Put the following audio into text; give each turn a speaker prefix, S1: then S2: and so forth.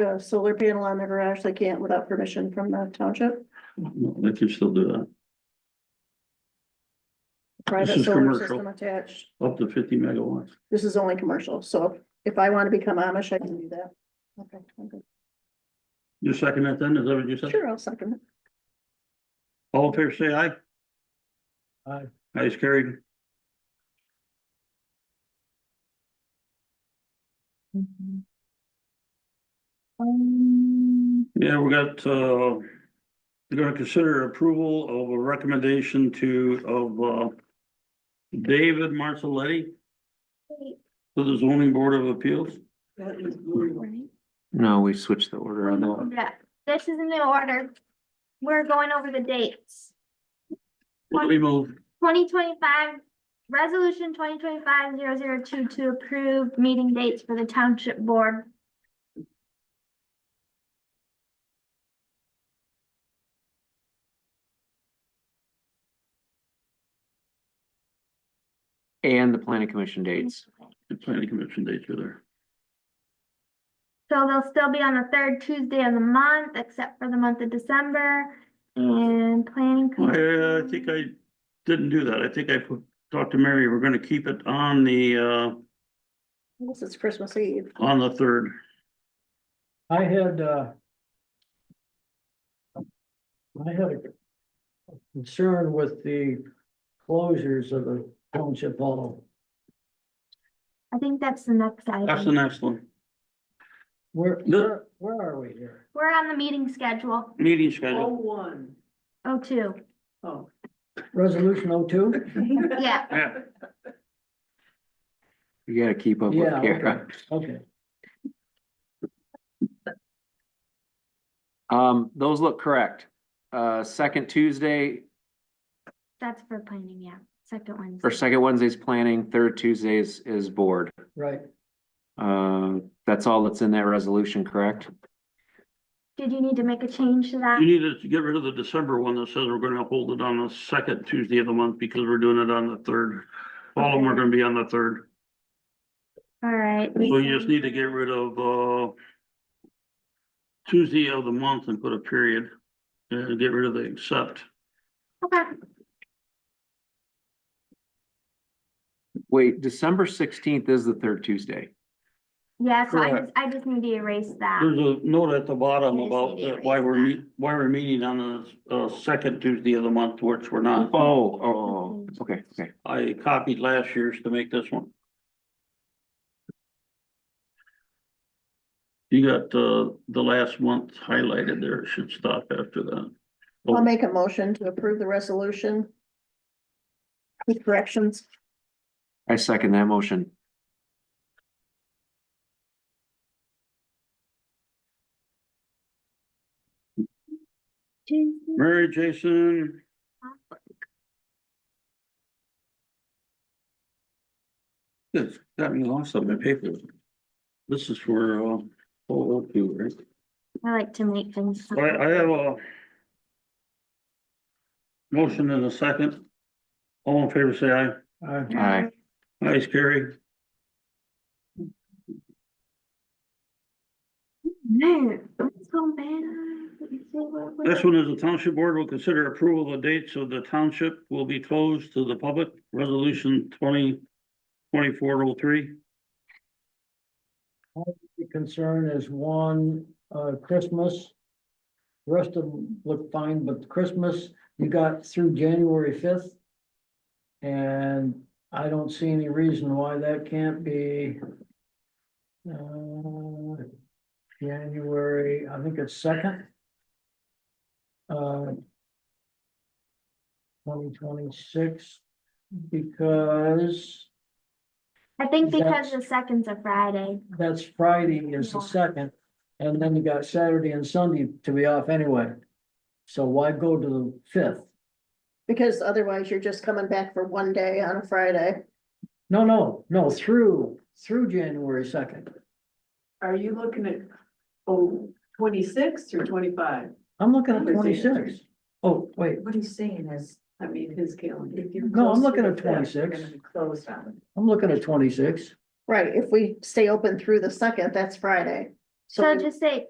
S1: a solar panel on their garage, they can't without permission from the township.
S2: No, They can still do that,
S1: Private
S2: is
S1: solar
S2: commercial.
S1: system attached.
S2: up to fifty megawatts.
S1: This is only commercial, so if I want to become Amish, I can do that. Okay, I'm good.
S2: You second that then, is that what you said?
S1: Sure, I'll second it.
S2: All in favor, say aye.
S3: Aye.
S2: Aye is carried. Yeah, we got, uh, we're gonna consider approval of a recommendation to, of, uh, David Marcelletti to the zoning board of appeals.
S4: No, we switched the order on that.
S5: Yeah, this is in the order. We're going over the dates.
S2: What do we move?
S5: Twenty twenty-five, resolution twenty twenty-five zero zero two to approve meeting dates for the township board.
S4: And the planning commission dates.
S2: The planning commission dates are there.
S5: So they'll still be on the third Tuesday of the month, except for the month of December and planning.
S2: I, I think I didn't do that. I think I put- talked to Mary, we're gonna keep it on the, uh,
S1: This is Christmas Eve.
S2: on the third.
S3: I had, uh. I had a concern with the closures of the township hall.
S5: I think that's the next
S2: That's the
S5: item.
S2: next one.
S3: Where,
S2: No.
S3: where, where are we here?
S5: We're on the meeting schedule,
S2: Meeting schedule.
S6: one.
S5: oh, two,
S6: Oh.
S3: Resolution oh two?
S5: yeah.
S2: Yeah,
S4: You gotta keep up
S3: Yeah,
S4: with Kara.
S3: okay.
S4: Um, those look correct. Uh, second Tuesday
S5: That's for planning, yeah, second Wednesday.
S4: or second Wednesday's planning, third Tuesday is, is board.
S3: right.
S4: Uh, that's all that's in that resolution, correct?
S5: Did you need to make a change to that?
S2: you need to get rid of the December one that says we're gonna hold it on the second Tuesday of the month because we're doing it on the third. All of them are gonna be on the third.
S5: All right.
S2: So you just need to get rid of, uh, Tuesday of the month and put a period and get rid of the except.
S5: Okay,
S4: Wait, December sixteenth is the third Tuesday.
S5: yeah, so I
S2: Correct.
S5: just, I just need to erase that.
S2: There's a note at the bottom
S5: I just
S2: about
S5: need to
S2: that why we're,
S5: erase
S2: meet- why we're meeting on the, uh, second Tuesday of the month, which we're
S4: Oh,
S3: Uh-huh.
S2: not.
S4: oh, oh, okay, okay.
S2: I copied last year's to make this one. You got, uh, the last month highlighted there. It should stop after that. Oh,
S1: I'll make a motion to approve the resolution. With corrections.
S4: I second that motion.
S5: Jason,
S2: Mary, Jason, this got me lost on my paper. This is for, uh, oh, okay, right?
S5: I like to make things.
S2: I, I have a motion and a second. All in favor, say aye.
S3: Uh,
S4: Aye.
S2: Aye, carry.
S5: Man, let's go, man. Let me see what we-
S2: This one is the township board will consider approval of the dates of the township will be closed to the public, resolution twenty twenty-four oh three.
S3: The concern is one, uh, Christmas. The Rest of them look fine, but Christmas, you got through January fifth. And I don't see any reason why that can't be. uh, January, I think it's second. Uh. Twenty twenty-six, because
S5: I think because
S3: That's-
S5: the second's a Friday,
S3: that's Friday is the
S5: Yeah.
S3: second, and then you got Saturday and Sunday to be off anyway. So why go to the fifth?
S1: Because otherwise you're just coming back for one day on a Friday.
S3: No, no, no, through, through January second.
S6: Are you looking at, oh, twenty-six or twenty-five?
S3: I'm looking at
S6: I'm gonna say
S3: twenty-six. Oh, wait,
S6: What he's saying is, I mean, his calendar.
S3: No, I'm looking at 26.
S6: Closed on.
S3: I'm looking at twenty-six.
S1: Right, if we stay open through the second, that's Friday.
S5: so
S1: we-
S5: just say